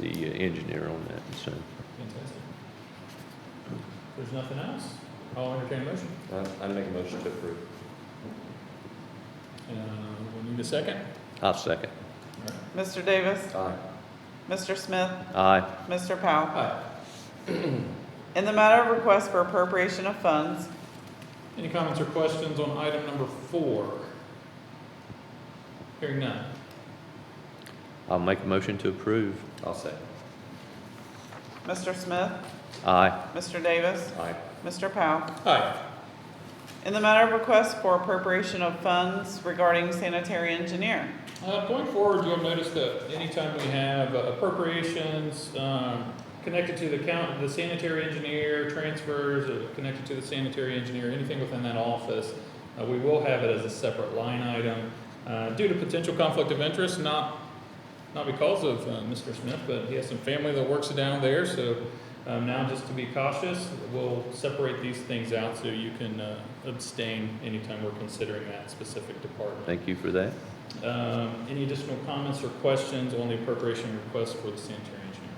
the uh, engineer on that, so. Fantastic. If there's nothing else, I'll entertain a motion. I, I make a motion to approve. Uh, we need a second. I'll second. Mr. Davis, Aye. Mr. Smith, Aye. Mr. Powell. Aye. In the matter of request for appropriation of funds, Any comments or questions on item number four? Hearing none. I'll make a motion to approve. I'll second. Mr. Smith, Aye. Mr. Davis, Aye. Mr. Powell. Aye. In the matter of request for appropriation of funds regarding sanitary engineer, Uh, going forward, you'll notice that anytime we have uh, appropriations, um, connected to the count, the sanitary engineer, transfers, or connected to the sanitary engineer, anything within that office, uh, we will have it as a separate line item. Uh, due to potential conflict of interest, not, not because of, uh, Mr. Smith, but he has some family that works down there, so, um, now just to be cautious, we'll separate these things out so you can, uh, abstain anytime we're considering that specific department. Thank you for that. Um, Any additional comments or questions on the appropriation request for the sanitary engineer?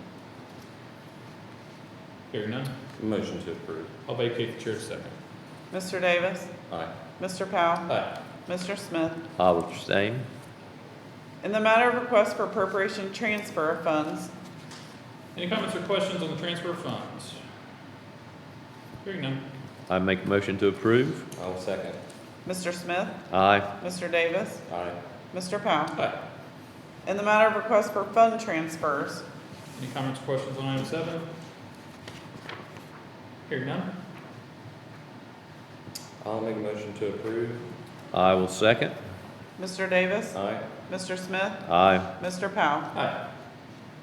Hearing none, Motion to approve. I'll vacate the chair second. Mr. Davis, Aye. Mr. Powell, Aye. Mr. Smith. I will abstain. In the matter of request for appropriation transfer of funds, Any comments or questions on the transfer of funds? Hearing none, I make a motion to approve. I'll second. Mr. Smith, Aye. Mr. Davis, Aye. Mr. Powell. aye. In the matter of request for fund transfers, Any comments or questions on item seven? Hearing none, I'll make a motion to approve. I will second. Mr. Davis, Aye. Mr. Smith, Aye. Mr. Powell. aye.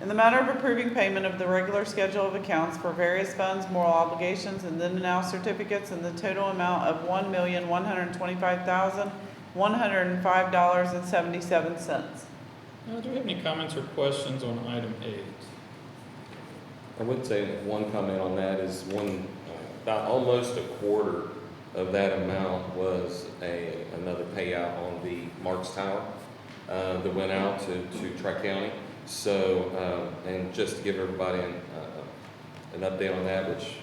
In the matter of approving payment of the regular schedule of accounts for various funds, moral obligations, and then and now certificates in the total amount of one million, one hundred and twenty-five thousand, one hundred and five dollars and seventy-seven cents. Uh, Do we have any comments or questions on item eight? I would say one comment on that is one, about almost a quarter of that amount was a, another payout on the Marks Tower, uh, that went out to, to Tri-County. So, um, and just to give everybody an, uh, an update on that, which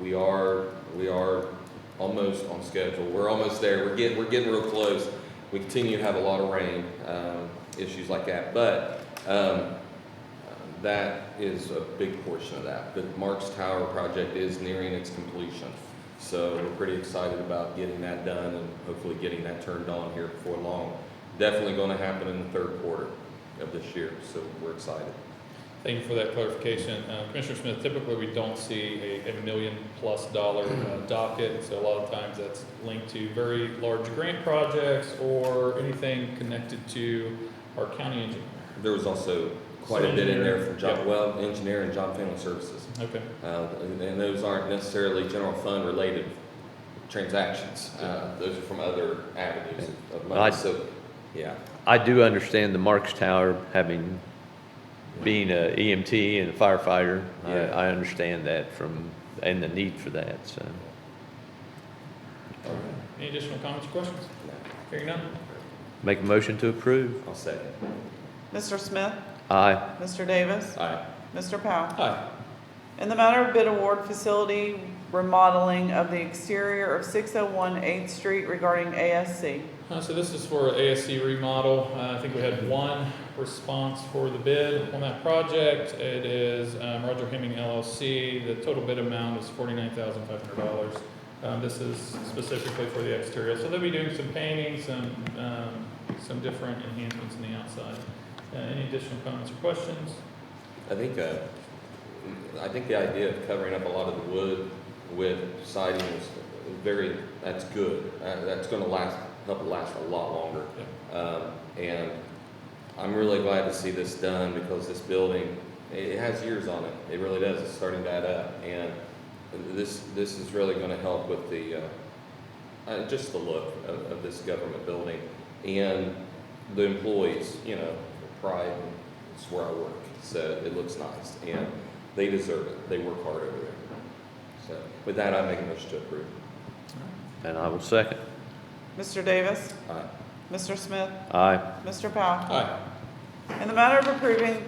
we are, we are almost on schedule. We're almost there. We're getting, we're getting real close. We continue to have a lot of rain, um, issues like that. But, um, that is a big portion of that. The Marks Tower project is nearing its completion. So we're pretty excited about getting that done and hopefully getting that turned on here before long. Definitely going to happen in the third quarter of this year, so we're excited. Thank you for that clarification. Uh, Commissioner Smith, typically, we don't see a, a million-plus dollar uh, docket, so a lot of times that's linked to very large grant projects or anything connected to our county engineer. There was also quite a bit in there from John, well, engineer and John Family Services. Okay, Uh, and and those aren't necessarily general fund related transactions. Uh, those are from other avenues of- of I- money, so, yeah. I do understand the Marks Tower having, being a EMT and a firefighter. I, Yeah. I understand that from, and the need for that, so. All any additional comments or questions? right. Hearing none, Make a motion to approve. I'll second. Mr. Smith, Aye. Mr. Davis, Aye. Mr. Powell. aye. In the matter of bid award facility remodeling of the exterior of six oh one Eighth Street regarding ASC. Uh, so this is for ASC remodel. Uh, I think we had one response for the bid on that project. It is, um, Roger Hemming LLC. The total bid amount is forty-nine thousand five hundred dollars. Um, this is specifically for the exterior. So they'll be doing some painting, some, um, some different enhancements on the outside. Uh, any additional comments or questions? I think, uh, I think the idea of covering up a lot of the wood with siding is very, that's good. Uh, that's gonna last, help it last a lot longer. Um, and I'm really glad to see this done because this building, it, it has years on it. It really does. It's starting to add up. And this, this is really gonna help with the, uh, uh, just the look of, of this government building. And the employees, you know, pride, and it's where I work, so it looks nice, and they deserve it, they work hard over there. So, with that, I make a motion to approve. And I will second. Mr. Davis, Aye. Mr. Smith, Aye. Mr. Powell. Aye. In the matter of approving